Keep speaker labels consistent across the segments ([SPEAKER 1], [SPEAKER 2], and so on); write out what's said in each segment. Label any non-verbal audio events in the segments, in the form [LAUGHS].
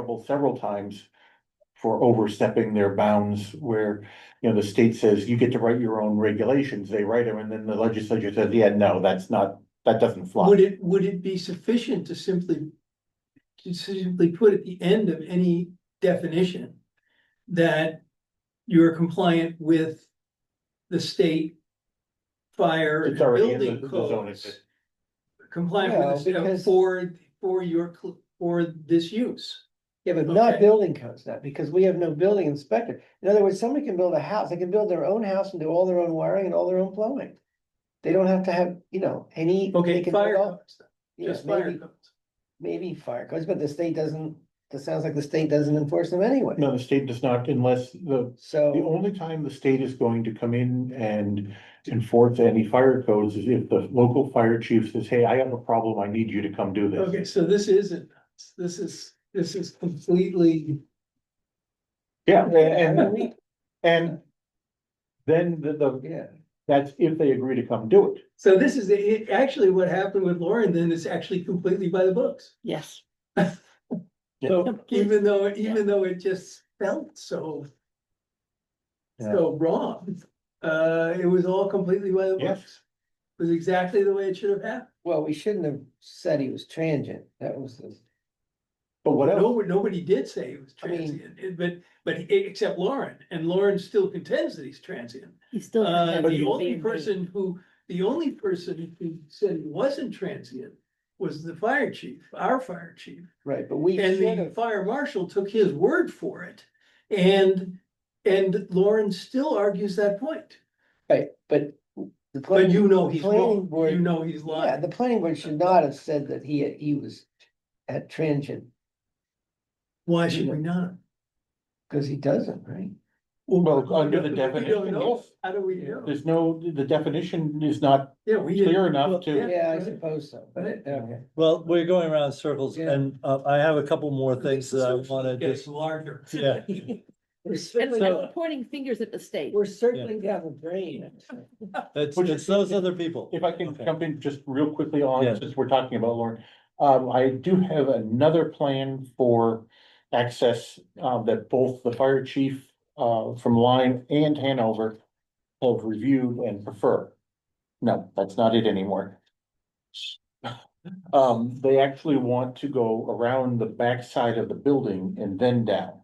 [SPEAKER 1] trouble several times for overstepping their bounds where, you know, the state says you get to write your own regulations, they write them, and then the legislature says, yeah, no, that's not, that doesn't fly.
[SPEAKER 2] Would it, would it be sufficient to simply, to simply put at the end of any definition that you're compliant with the state fire and
[SPEAKER 1] It's already in the-
[SPEAKER 2] building
[SPEAKER 1] the zone,
[SPEAKER 2] codes?
[SPEAKER 1] it's-
[SPEAKER 2] Compliant with the
[SPEAKER 3] No,
[SPEAKER 2] state
[SPEAKER 3] because-
[SPEAKER 2] for, for your, cl- for this use.
[SPEAKER 3] Yeah, but not
[SPEAKER 2] Okay.
[SPEAKER 3] building codes now, because we have no building inspector. In other words, somebody can build a house, they can build their own house and do all their own wiring and all their own plumbing. They don't have to have, you know, any. they
[SPEAKER 2] Okay,
[SPEAKER 3] can
[SPEAKER 2] fire
[SPEAKER 3] put all-
[SPEAKER 2] codes,
[SPEAKER 3] yeah,
[SPEAKER 2] just fire
[SPEAKER 3] maybe-
[SPEAKER 2] codes.
[SPEAKER 3] Maybe fire codes, but the state doesn't, it sounds like the state doesn't enforce them anyway.
[SPEAKER 1] No, the state does not unless the, the
[SPEAKER 3] So,
[SPEAKER 1] only time the state is going to come in and enforce any fire codes is if the local fire chief says, hey, I have a problem, I need you to come do this.
[SPEAKER 2] Okay, so this isn't, this is, this is completely.
[SPEAKER 1] Yeah, and,
[SPEAKER 3] I
[SPEAKER 1] and-
[SPEAKER 3] don't need-
[SPEAKER 1] and then the, the,
[SPEAKER 3] yeah,
[SPEAKER 1] that's if they agree to come do it.
[SPEAKER 2] So this is, it, actually what happened with Lauren then is actually completely by the books.
[SPEAKER 4] Yes.
[SPEAKER 2] [LAUGHS] So
[SPEAKER 4] Complete-
[SPEAKER 2] even though, even though it just felt so. So wrong, uh, it was all completely by the
[SPEAKER 1] Yes.
[SPEAKER 2] books. It Was exactly the way it should have happened.
[SPEAKER 3] well, we shouldn't have said he was transient. That was the,
[SPEAKER 1] But what else?
[SPEAKER 2] Nobody, nobody did say it was
[SPEAKER 3] I mean-
[SPEAKER 2] transient, it- but, but he- except Lauren, and Lauren still contends that he's transient.
[SPEAKER 4] He's still.
[SPEAKER 2] Uh,
[SPEAKER 4] gonna have
[SPEAKER 2] the
[SPEAKER 4] to
[SPEAKER 2] only
[SPEAKER 4] be-
[SPEAKER 2] person who, the only person who said he wasn't transient was the fire chief, our fire chief.
[SPEAKER 3] right, but we
[SPEAKER 2] And
[SPEAKER 3] should
[SPEAKER 2] the
[SPEAKER 3] have,
[SPEAKER 2] fire marshal took his word for it. And, and Lauren still argues that point.
[SPEAKER 3] right, but. the
[SPEAKER 2] But you know
[SPEAKER 3] the
[SPEAKER 2] he's
[SPEAKER 3] planning
[SPEAKER 2] wrong.
[SPEAKER 3] board-
[SPEAKER 2] You know he's
[SPEAKER 3] Yeah,
[SPEAKER 2] lying.
[SPEAKER 3] the planning board should not have said that he, he was at transient,
[SPEAKER 2] Why should we not?
[SPEAKER 3] because he doesn't, right?
[SPEAKER 1] Well, under the
[SPEAKER 2] We don't
[SPEAKER 1] definition,
[SPEAKER 2] know.
[SPEAKER 1] yes.
[SPEAKER 2] How do we know?
[SPEAKER 1] There's no, the definition is not
[SPEAKER 2] Yeah, we
[SPEAKER 1] clear
[SPEAKER 2] didn't.
[SPEAKER 1] enough to.
[SPEAKER 3] Yeah, I
[SPEAKER 2] right.
[SPEAKER 3] suppose so, but,
[SPEAKER 2] Right.
[SPEAKER 3] okay.
[SPEAKER 5] Well, we're going around in circles
[SPEAKER 3] Yeah.
[SPEAKER 5] and uh, I have a couple more things that I wanna
[SPEAKER 2] Gets
[SPEAKER 5] just,
[SPEAKER 2] larger.
[SPEAKER 5] yeah.
[SPEAKER 3] [LAUGHS] We're
[SPEAKER 4] And
[SPEAKER 3] circling,
[SPEAKER 4] I'm pointing fingers at the state.
[SPEAKER 3] we're circling down the drain.
[SPEAKER 5] It's,
[SPEAKER 1] Which-
[SPEAKER 5] it's those other people.
[SPEAKER 1] If I can
[SPEAKER 5] Okay.
[SPEAKER 1] jump in just real quickly on,
[SPEAKER 5] Yeah.
[SPEAKER 1] since we're talking about Lauren, um, I do have another plan for access, um, that both the fire chief, uh, from Lyme and Hanover have reviewed and prefer. No, that's not it anymore. [LAUGHS] Um, they actually want to go around the backside of the building and then down,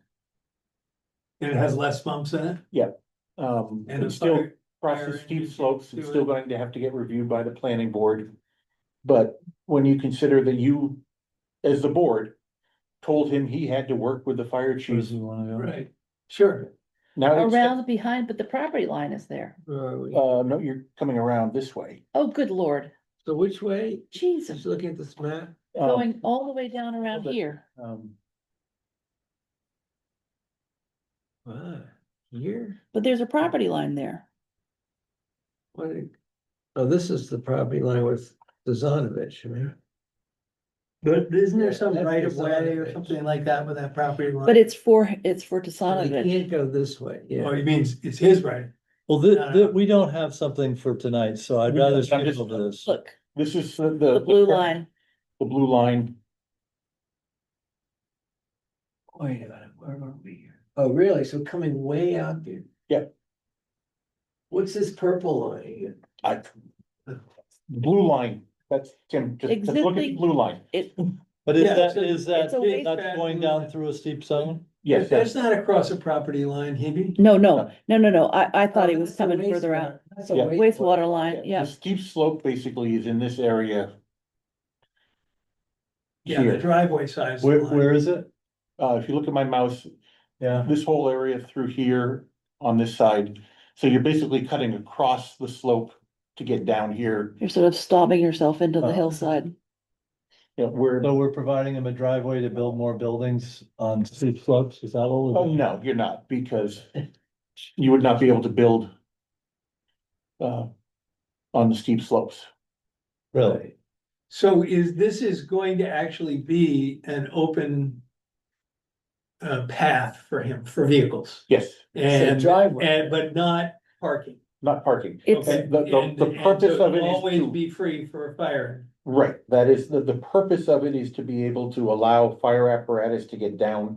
[SPEAKER 2] And it has less bumps in it.
[SPEAKER 1] um,
[SPEAKER 2] And
[SPEAKER 1] and
[SPEAKER 2] it's
[SPEAKER 1] still.
[SPEAKER 2] still,
[SPEAKER 1] crosses
[SPEAKER 2] Fire
[SPEAKER 1] steep
[SPEAKER 2] engine
[SPEAKER 1] slopes and
[SPEAKER 2] to
[SPEAKER 1] still
[SPEAKER 2] it.
[SPEAKER 1] going to have to get reviewed by the planning board. But when you consider that you, as the board, told him he had to work with the fire
[SPEAKER 5] Where does
[SPEAKER 2] Mm-hmm.
[SPEAKER 1] chief,
[SPEAKER 5] he wanna go?
[SPEAKER 2] right, sure.
[SPEAKER 1] now it's,
[SPEAKER 4] Around behind, but the property line is there.
[SPEAKER 1] uh, no, you're coming around this way.
[SPEAKER 4] Oh, good lord.
[SPEAKER 3] So which way,
[SPEAKER 4] Jesus,
[SPEAKER 3] looking at this map?
[SPEAKER 1] Um,
[SPEAKER 4] going all the way down around
[SPEAKER 1] but-
[SPEAKER 4] here.
[SPEAKER 1] um,
[SPEAKER 3] Ah, here,
[SPEAKER 4] But there's a property line there.
[SPEAKER 3] what, oh, this is the property line with Dezonovich, right?
[SPEAKER 2] But isn't there some
[SPEAKER 3] Yeah, that's
[SPEAKER 2] right of
[SPEAKER 3] the
[SPEAKER 2] way or
[SPEAKER 3] zone.
[SPEAKER 2] something like that with that property line?
[SPEAKER 4] But it's for, it's for
[SPEAKER 3] You can't
[SPEAKER 4] Tassanovich.
[SPEAKER 3] go this way,
[SPEAKER 2] Oh,
[SPEAKER 3] yeah.
[SPEAKER 2] you mean it's- it's his right?
[SPEAKER 5] Well, thi-
[SPEAKER 2] No, no,
[SPEAKER 5] thi-
[SPEAKER 2] no.
[SPEAKER 5] we don't have something for tonight, so I'd
[SPEAKER 1] We don't.
[SPEAKER 5] rather
[SPEAKER 1] I'm
[SPEAKER 5] skip
[SPEAKER 1] just-
[SPEAKER 5] over this.
[SPEAKER 4] Look,
[SPEAKER 1] This is the,
[SPEAKER 4] the
[SPEAKER 1] the.
[SPEAKER 4] blue line.
[SPEAKER 1] The blue line,
[SPEAKER 3] Wait a minute, where are we here? Oh, really? So coming way out there?
[SPEAKER 1] Yep.
[SPEAKER 3] What's this purple line here?
[SPEAKER 1] I, blue line, that's Tim, just just look at the
[SPEAKER 4] Existing-
[SPEAKER 1] blue line.
[SPEAKER 4] It,
[SPEAKER 5] But is
[SPEAKER 2] Yeah,
[SPEAKER 5] that,
[SPEAKER 2] it's a-
[SPEAKER 5] is that,
[SPEAKER 4] it's a waste
[SPEAKER 5] that's
[SPEAKER 2] bag.
[SPEAKER 5] going down through a steep zone?
[SPEAKER 1] Yes,
[SPEAKER 2] That's
[SPEAKER 1] that's,
[SPEAKER 2] not across a property line, Hebe.
[SPEAKER 4] no, no, no, no, no. I, I thought he
[SPEAKER 3] Oh,
[SPEAKER 4] was
[SPEAKER 3] that's a
[SPEAKER 4] coming further
[SPEAKER 3] wastewater.
[SPEAKER 4] out.
[SPEAKER 3] That's a
[SPEAKER 1] Yeah.
[SPEAKER 3] wastewater.
[SPEAKER 4] Wastewater line,
[SPEAKER 1] the
[SPEAKER 4] yeah.
[SPEAKER 1] steep slope basically is in this area.
[SPEAKER 2] Yeah, the
[SPEAKER 1] Here,
[SPEAKER 2] driveway size.
[SPEAKER 5] Where, where is it?
[SPEAKER 1] uh, if you look at my mouse,
[SPEAKER 5] Yeah,
[SPEAKER 1] this whole area through here on this side. So you're basically cutting across the slope to get down here,
[SPEAKER 4] You're sort of stomping yourself into the
[SPEAKER 5] Oh.
[SPEAKER 4] hillside.
[SPEAKER 1] you know, where,
[SPEAKER 5] so we're providing him a driveway to build more buildings on steep slopes, is that all?
[SPEAKER 1] oh,
[SPEAKER 5] of it?
[SPEAKER 1] no, you're not, because you would not be able to build uh, on the steep slopes.
[SPEAKER 5] Really?
[SPEAKER 2] So is, this is going to actually be an open uh, path for him, for vehicles
[SPEAKER 1] Yes,
[SPEAKER 3] It's a
[SPEAKER 2] and,
[SPEAKER 3] driveway.
[SPEAKER 2] and, but not parking.
[SPEAKER 1] not parking.
[SPEAKER 4] It's,
[SPEAKER 2] Okay.
[SPEAKER 1] The- the-
[SPEAKER 2] And-
[SPEAKER 1] the
[SPEAKER 2] and
[SPEAKER 1] purpose
[SPEAKER 2] so
[SPEAKER 1] of it is
[SPEAKER 2] Always
[SPEAKER 1] to-
[SPEAKER 2] be free for a fire
[SPEAKER 1] Right, that is, the, the purpose of it is to be able to allow fire apparatus to get down